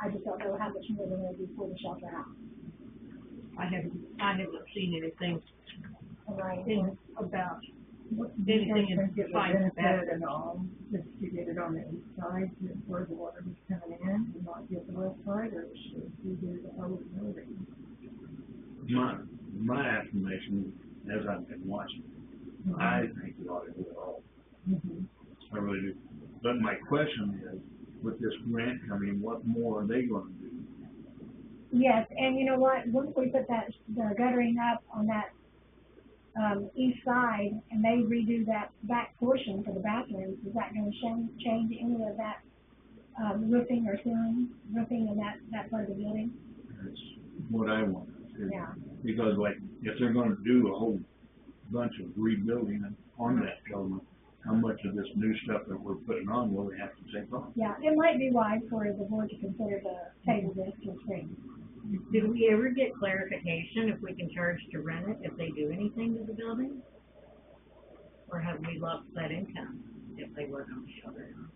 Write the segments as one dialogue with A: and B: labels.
A: I just don't know how much more than will be for the shelter house.
B: I haven't, I haven't seen anything,
A: All right.
B: thing about
C: They
B: anything in
C: think it was
B: fight about
C: benefited at all, just to get it on the east side, to where the water was coming in, and not get the west side, or should we do the whole building?
D: My, my affirmation, as I've been watching, I think we ought to do it all.
C: Mhm.
D: I really do. But my question is, with this grant coming, what more are they gonna do?
A: Yes, and you know what, once we put that, the guttering up on that, um, east side, and they redo that back portion for the bathrooms, is that gonna change, change any of that, um, roofing or ceiling, roofing in that, that part of the building?
D: That's what I want. is-
A: Yeah.
D: Because like, if they're gonna do a whole bunch of rebuilding on that element, how much of this new stuff that we're putting on will they have to take off?
A: Yeah, it might be wise for the board to consider the table this to spring.
E: Did we ever get clarification if we can charge to rent it if they do anything to the building? Or have we lost that income if they work on the shelter? house?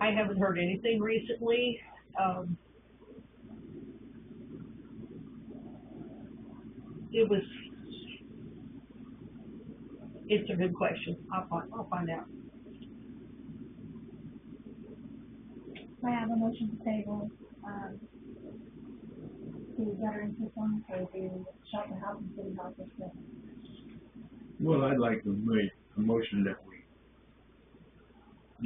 B: I haven't heard anything recently, um. It was. It's a good question, I'll find, I'll find out.
A: I have a motion to table, um, the guttering system for the shelter house and city hall system.
D: Well, I'd like to make a motion that we,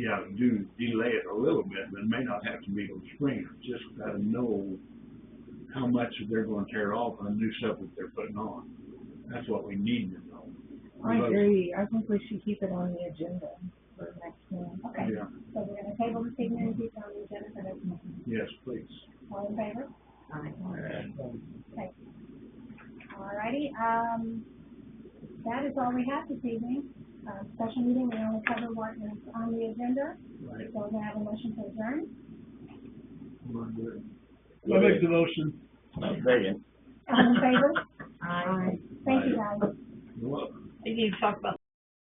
D: yeah, do delay it a little bit, but it may not have to be till spring. Just gotta know how much they're gonna tear off on new stuff that they're putting on. That's what we need to know.
C: I
D: Because-
C: agree, I think we should keep it on the agenda for next month.
A: Okay,
D: Yeah,
A: so we're gonna table this evening, and keep it on the agenda for next month.
D: yes, please.
A: All in favor?
E: I-
A: Alrighty, um, that is all we have this evening. Uh, special meeting, we only cover what is on the agenda,
D: Right.
A: so we're gonna have a motion to adjourn.
F: I make the
D: motion.
A: All in favor?
E: I
A: Thank you, guys.
B: They need to talk about